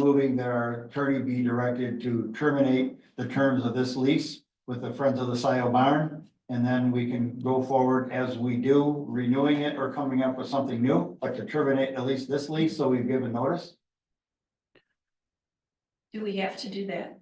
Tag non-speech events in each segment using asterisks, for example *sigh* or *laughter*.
moving that our attorney be directed to terminate the terms of this lease with the Friends of the Scioto Barn. And then we can go forward as we do, renewing it or coming up with something new, but to terminate at least this lease, so we've given notice. Do we have to do that?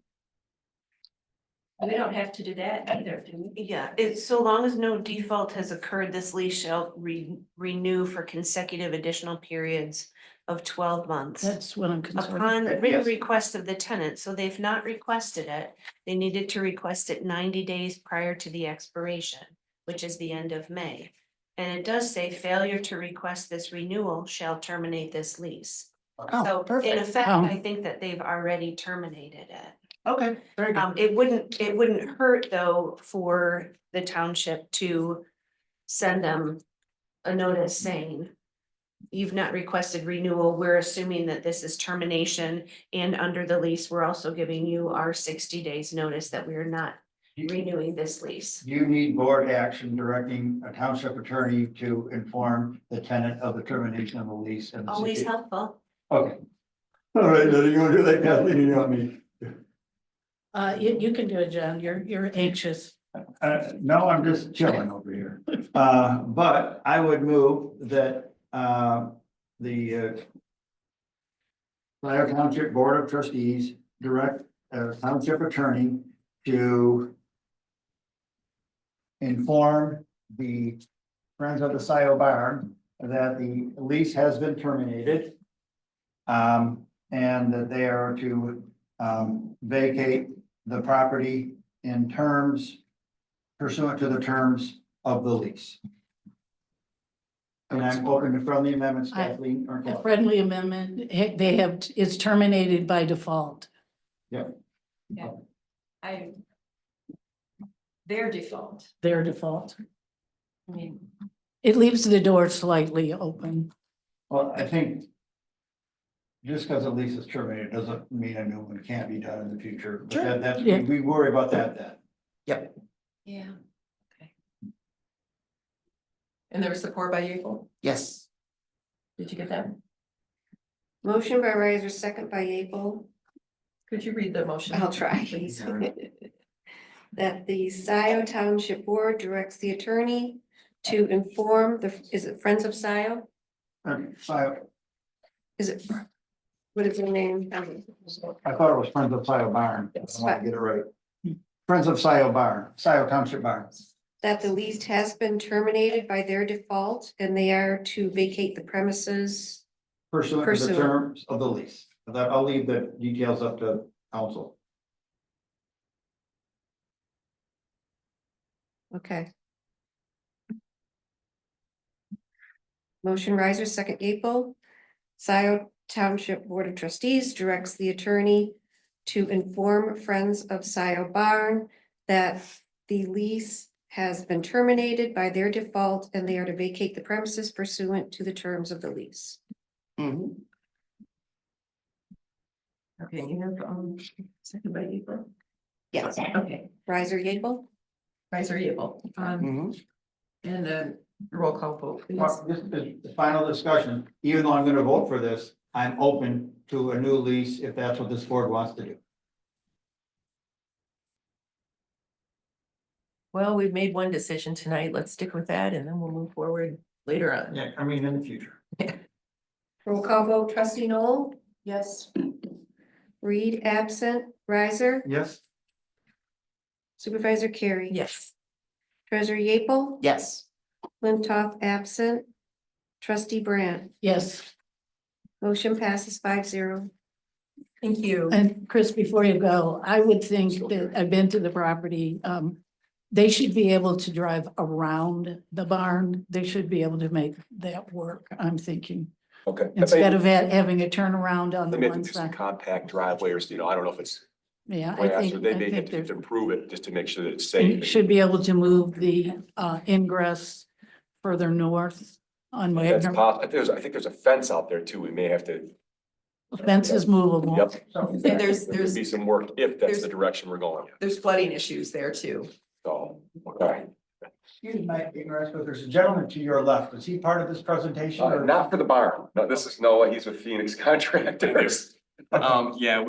We don't have to do that either, do we? Yeah, it's so long as no default has occurred, this lease shall re- renew for consecutive additional periods of twelve months. That's what I'm concerned. Upon Yes. written request of the tenant, so they've not requested it, they needed to request it ninety days prior to the expiration, which is the end of May. And it does say failure to request this renewal shall terminate this lease. Oh, So in perfect. effect, Um, I think that they've already terminated it. Okay, very good. Um, it wouldn't, it wouldn't hurt though for the township to send them a notice saying. You've not requested renewal. We're assuming that this is termination and under the lease, we're also giving you our sixty days notice that we are not Do renewing this lease. You need board action directing a township attorney to inform the tenant of the termination of the lease and. the Oh, Always situ- helpful. Okay. All right, then you wanna do that, Kathleen, you know me. Uh, you, you can do it, John. You're, you're anxious. Uh, no, I'm just chilling over here. Uh, but I would move that, uh, the, uh. Scioto Township Board of Trustees direct, uh, township attorney to. Inform the Friends of the Scioto Barn that the lease has been terminated. Um, and that they are to, um, vacate the property in terms pursuant to the terms of the lease. And I'm open to friendly amendments, I- Kathleen or A Claudia. friendly amendment, he- they have, it's terminated by default. I. Their default, Their default. I mean, It leaves the door slightly open. Well, I think. Just because a lease is terminated doesn't mean a new one can't be done in the future, but Sure. that, that's- Yeah. we worry about that then. yeah. And there was support by Yeaple? Yes, Did you get that? Motion by Riser, second by Abel. Could you read the motion? I'll try. please? *laughs* That the Scioto Township Board directs the attorney to inform the, is it Friends of Scioto? Okay, so Is it? What is their name? Um, I, I thought it was Friends of Scioto Barn. I Yes. want to get it right. Friends of Scioto Barn, Scioto Township Barn. That the lease has been terminated by their default and they are to vacate the premises. Pursuant to the Pursuant. terms of the lease. That, I'll leave the details up to council. Okay. Motion riser, second April. Scioto Township Board of Trustees directs the attorney to inform Friends of Scioto Barn that the lease has been terminated by their default and they are to vacate the premises pursuant to the terms of the lease. Mhm. Okay, you have, um, second by Yeaple? Yes, Okay, riser, Yeaple, Riser Yeaple, um, Mhm. and then roll call vote, please. Well, this is the final discussion, even though I'm gonna vote for this, I'm open to a new lease if that's what this board wants to do. Well, we've made one decision tonight. Let's stick with that and then we'll move forward later on. Yeah, I mean, in the future. roll call vote, trustee Noel, Yes. Reed absent, riser, Yes? supervisor Carey. Yes. Treasurer Yeaple. yes, Flintoff absent. Trustee Brandt, Yes. motion passes five zero. Thank you. And Chris, before you go, I would think that I've been to the property. Um, they should be able to drive around the barn. They should be able to make that work, I'm thinking. Okay. I may- Instead of ha- having a turnaround on They the may have to one do some side. compact driveways, you know, I don't know if it's, Yeah, I grass, think, or I they may think have they're to improve it just to make sure that it's And safe. you should be able to move the uh, ingress further north on That's Wagner. possible. There's, I think there's a fence out there too. We may have to, Fence is movable. yep. So- *laughs* There's, There could there's, be some work if that's the there's- direction we're going. there's flooding issues there too. So, okay. Excuse my ignorance, but there's a gentleman to your left. Is he part of this presentation Uh, or? Not for the barn. No, this is Noah. He's with Phoenix Contractors. Um, yeah,